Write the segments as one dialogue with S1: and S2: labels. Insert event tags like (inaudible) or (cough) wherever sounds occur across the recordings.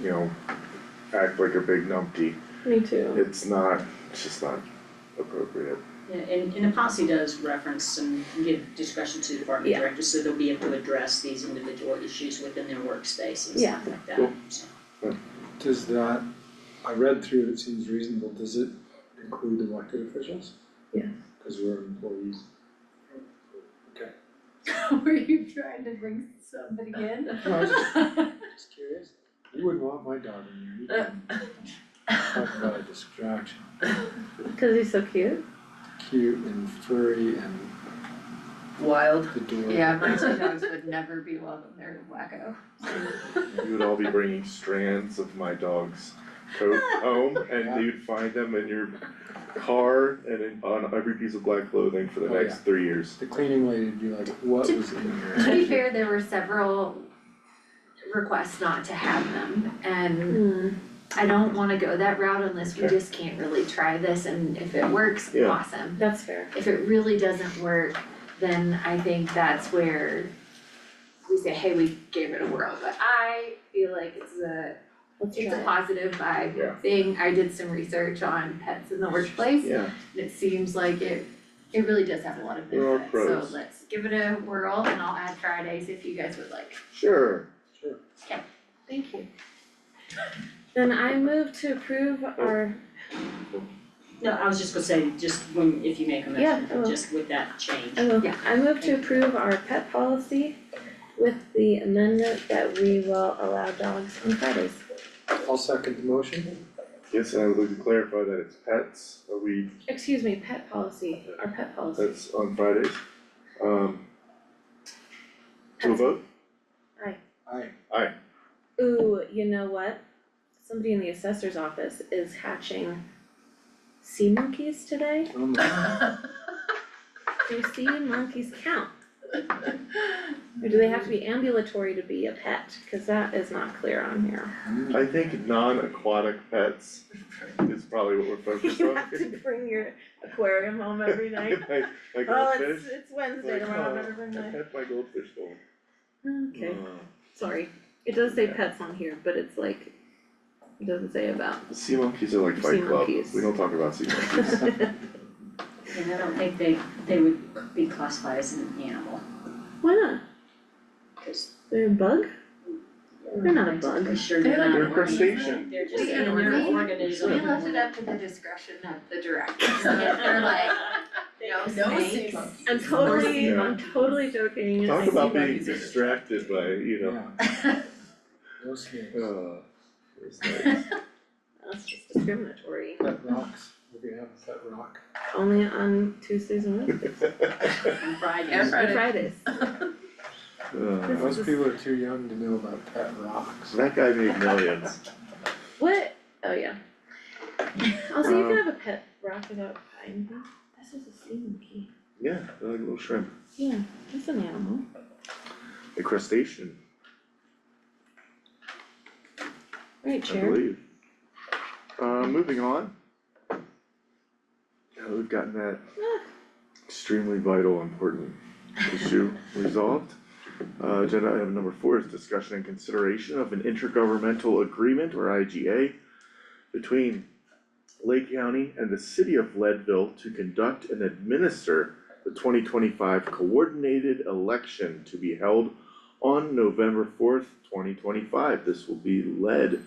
S1: you know, act like a big numpty.
S2: Me too.
S1: It's not, it's just not appropriate.
S3: Yeah, and and the policy does reference and give discretion to department
S2: Yeah.
S3: directors, so they'll be able to address these individual issues within their workspace and
S2: Yeah.
S3: stuff like that,
S1: Cool.
S3: so.
S4: Does that, I read through, it seems reasonable, does it include elected officials?
S2: Yeah.
S4: Cause we're employees.
S5: (laughs) Were you trying to bring somebody in?
S4: No, I was just, just curious, you wouldn't want my dog in here, you can talk about a distraction,
S2: Cause he's so cute.
S4: cute and furry and
S5: Wild.
S4: adorable.
S6: (laughs)
S5: Yeah, my two dogs would never be welcome there in Wacko.
S1: You would all be bringing strands of my dog's coat home and you'd find them in your car and in, on every piece of black clothing for the
S4: Oh,
S1: next
S4: yeah.
S1: three years.
S4: The cleaning lady would be like, what
S6: To-
S4: was in
S6: (laughs)
S4: here?
S6: To be fair, there were several requests not to have them, and
S2: Mm.
S6: I don't wanna go that route unless we
S1: Okay.
S6: just can't really try this, and if it works,
S1: Yeah.
S6: awesome.
S2: That's fair.
S6: If it really doesn't work, then I think that's where we say, hey, we gave it a whirl, but I feel like it's a,
S2: Let's
S6: it's a
S2: try.
S6: positive vibe
S1: Yeah.
S6: thing. I did some research on pets in the workplace,
S1: Yeah,
S6: and it seems like it, it really does have a lot of
S1: There are
S6: benefits, so
S1: pros.
S6: let's give it a whirl, and I'll add Fridays if you guys would like.
S1: sure.
S2: Thank you. Then I move to approve our,
S3: No, I was just gonna say, just when, if you make a
S2: Yeah, I
S3: motion,
S2: will.
S3: just with that change.
S2: I will,
S6: Yeah.
S2: I move to approve our pet policy with the amendment that we will allow dogs on Fridays.
S4: I'll second the motion,
S1: Yes, and I would like to clarify that it's pets, are we,
S2: Excuse me, pet policy, our pet policy.
S1: that's on Fridays. Um. To a vote?
S4: aye,
S2: Ooh, you know what? Somebody in the assessor's office is hatching sea monkeys today.
S4: I'm like,
S2: Do sea monkeys count? Or do they have to be ambulatory to be a pet? Cause that is not clear on
S1: (laughs)
S2: here.
S4: mm,
S1: I think non-aquatic pets is probably what we're focused on.
S2: You have to bring your aquarium
S1: (laughs)
S2: home every night.
S1: Like, like
S2: Oh,
S1: a
S2: it's
S1: fish,
S2: it's Wednesday
S1: like,
S2: tomorrow,
S1: oh,
S2: I'm
S1: Mm.
S2: never bring
S1: I
S2: my.
S1: had my goldfish bowl.
S2: Okay, sorry. It does say pets on here, but it's like, it doesn't say
S1: (laughs)
S2: about.
S1: Uh, Sea monkeys are like
S2: Sea
S1: Fight Club,
S2: monkeys.
S1: we don't talk about sea
S2: (laughs)
S1: monkeys.
S3: And I don't think they, they would be classified as an animal,
S2: Why not?
S3: cause.
S2: They're a bug? They're not a bug.
S3: I'm sure
S6: They're
S3: they're not.
S6: like
S1: They're
S3: an organism.
S1: crustacean.
S3: They're just,
S6: We-
S3: and they're an
S6: we-
S3: organism.
S6: We
S3: (laughs)
S6: left it up to the discretion of the directors, if they're like, (laughs) no snakes.
S2: I'm totally,
S1: Yeah.
S2: I'm totally joking.
S1: Talk about being
S5: monkeys are-
S1: distracted by, you know,
S4: yeah, no snakes,
S1: uh, (laughs) it's
S6: (laughs)
S1: nice.
S2: That's just discriminatory.
S4: that rocks, we're gonna have that rock.
S2: Only on Tuesdays and Wednesdays,
S3: On Fridays.
S5: And Fridays.
S2: Fridays. (laughs)
S1: Uh,
S2: This
S4: Most
S2: is-
S4: people are too young to know about pet rocks.
S1: That guy made millions.
S2: What? Oh, yeah. Also, you
S1: Um,
S2: can have a pet rock without buying them. This is a sea monkey.
S1: Yeah, they're like little shrimp,
S2: Yeah, that's an animal.
S1: a crustacean,
S2: Right,
S1: I
S2: Chair?
S1: believe. Uh, moving on. Now that we've gotten that extremely vital, important issue resolved. Uh, agenda item number four is discussion and consideration of an intergovernmental agreement or IGA between Lake County and the city of Leadville to conduct and administer the twenty twenty-five coordinated election to be held on November fourth, twenty twenty-five. This will be led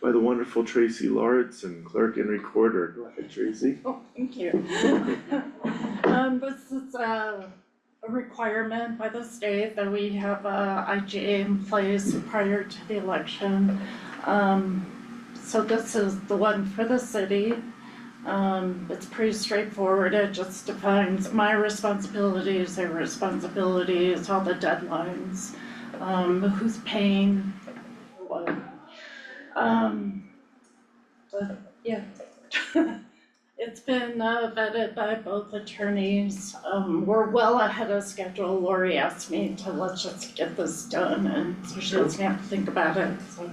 S1: by the wonderful Tracy Lawrence and clerk and recorder. Go ahead, Tracy.
S7: (laughs) Oh, thank you. Um, this is a a requirement by the state that we have a IGA in place prior to the election. Um, so this is the one for the city. Um, it's pretty straightforward, it just defines my responsibilities, their responsibilities, all the deadlines, um, who's paying, what. Um, but, yeah. (laughs) It's been uh, vetted by both attorneys. Um, we're well ahead of schedule. Lori asked me to let's just get this done and so she doesn't have to think about it, so.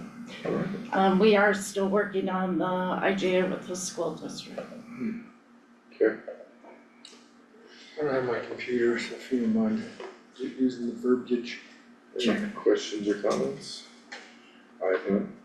S7: Um, we are still working on the IGA with the school district.
S4: I don't have my computer, so if you don't mind using the verbiage.
S1: Any questions or comments? I have none.